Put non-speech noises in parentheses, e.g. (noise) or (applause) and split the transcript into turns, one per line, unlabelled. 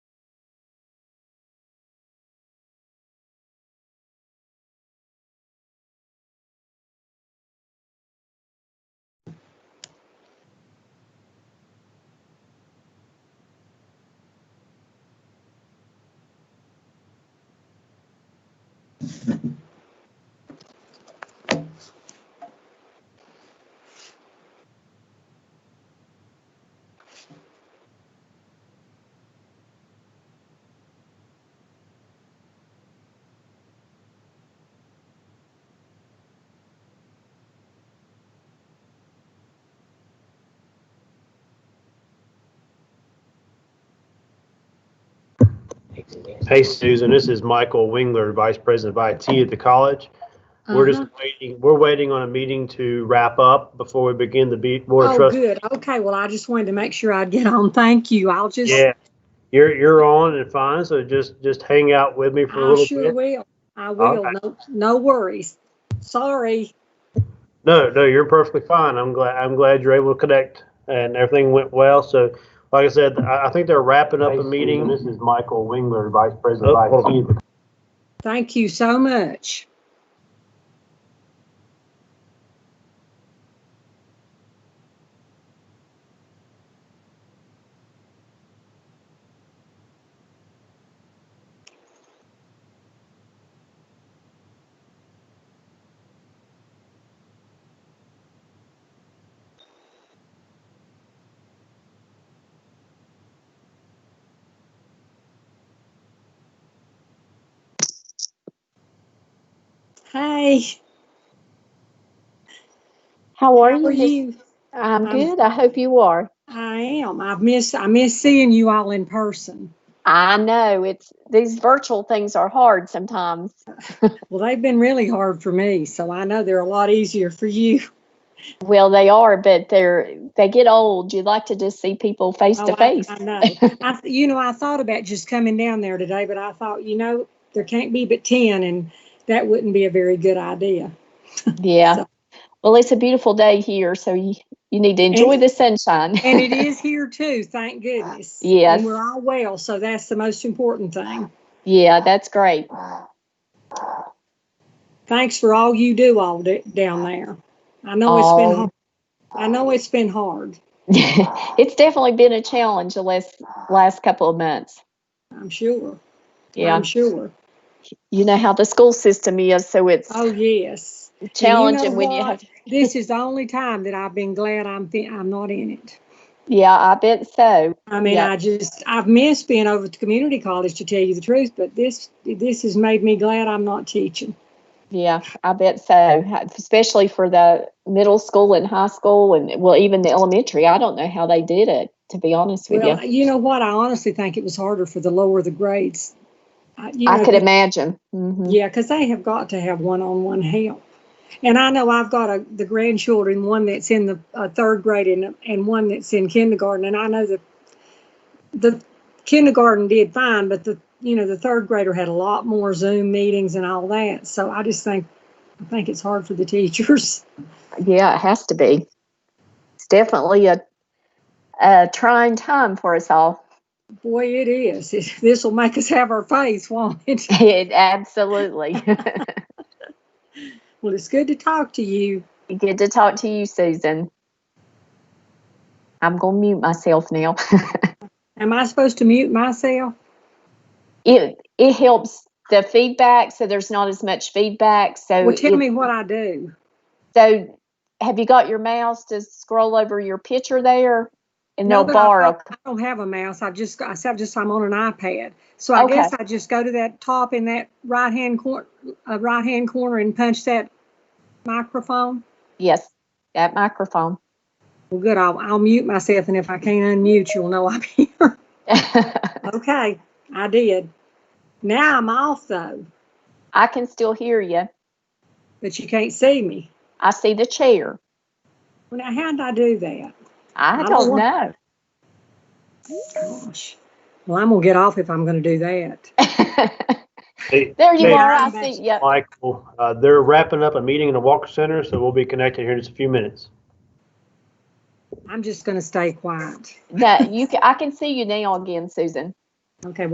Hey Susan, this is Michael Wingler, Vice President of IT at the college. We're just
Uh-huh.
waiting, we're waiting on a meeting to wrap up before we begin the Be- Board of
Oh,
Trustees.
good. Okay, well, I just wanted to make sure I'd get on. Thank you. I'll just,
Yeah, you're, you're on and fine, so just, just hang out with me for a
I
little
Oh, sure
bit.
will. I will.
Okay.
No, no worries. Sorry.
No, no, you're perfectly fine. I'm glad, I'm glad you're able to connect and everything went well. So like I said, I, I think they're wrapping up a meeting. Oh, This is Michael Wingler, Vice President of IT.
Thank you so much. Hey,
How are
how
you?
are
Miss-
you?
I'm
I'm-
good. I hope you are.
I am. I miss, I miss seeing you all in person.
I know it's these virtual things are hard sometimes.
Well, they've been really hard for me, so I know they're a lot easier for
(laughs)
you.
Well, they are, but they're they get old. You'd like to just see people face
Oh,
to
I-
face.
I
(laughs)
know. I, th- you know, I thought about just coming down there today, but I thought, you know, there can't be but ten, and that wouldn't be a very good idea.
Yeah.
So-
Well, it's a beautiful day here, so you you need to enjoy the sunshine.
And it is here too, thank goodness.
Yes.
And we're all well, so that's the most important thing.
(laughs) Yeah, that's great. (laughs)
Thanks for all you do all d- down there. I know it's
Oh.
been, hard. I know it's been hard.
it's definitely been a challenge the last last couple of months.
I'm sure.
Yeah.
I'm sure.
You know how the school system is, so it's
Oh, yes.
challenging when you
what?
have
This is the only time that I've been glad I'm, fi- I'm not in it.
Yeah, I bet so.
I mean,
Yeah.
I just, I've missed being over at the community college to tell you the truth, but this, this has made me glad I'm not teaching.
Yeah, I bet so. Especially for the middle school and high school, and well, even the elementary. I don't know how they did it, to be honest with
Well,
you.
you know what? I honestly think it was harder for the lower the grades. I you
I
know,
could imagine. hmm
Yeah, because they have got to have one-on-one help. And I know I've got a, the grandchildren, one that's in the uh, third grade and, and one that's in kindergarten. And I know that the kindergarten did fine, but the, you know, the third grader had a lot more Zoom meetings and all that. So I just think, I think it's hard for the teachers. (laughs)
Yeah, it has to be. It's definitely a, a trying time for us all. (laughs)
Boy, it is. This will make us have our face, won't it? (laughs)
It absolutely. (laughs)
Well, it's good to talk to you.
Good to talk to you, Susan. I'm gonna mute myself now. (laughs)
Am I supposed to mute myself?
it it helps the feedback, so there's not as much feedback. So
Well, tell
Oh, it-
me what I do.
So have you got your mouse to scroll over your picture there? And
No,
they'll
but I
bar
don't-
up.
I don't have a mouse. I just, I said, just, I'm on an iPad. So I
Okay.
guess I just go to that top in that right-hand cor, uh, right-hand corner and punch that microphone.
Yes, that microphone. (laughs)
Well, good. I'll, I'll mute myself and if I can't unmute, you'll know I'm (laughs) here. Okay, I did. Now I'm off though,
I can still hear you.
but you can't see me.
I see the chair.
Well, now how'd I do that?
I
I
don't
don't-
know.
Gosh. Well, I'm gonna get off if I'm gonna do that.
Hey,
(laughs) There you
Hey.
are. I see, yeah.
Michael, uh, they're wrapping up a meeting in the Walker Center, so we'll be connected here in just a few minutes.
I'm just gonna stay quiet.
That you can, I can see you now again, Susan.
Okay,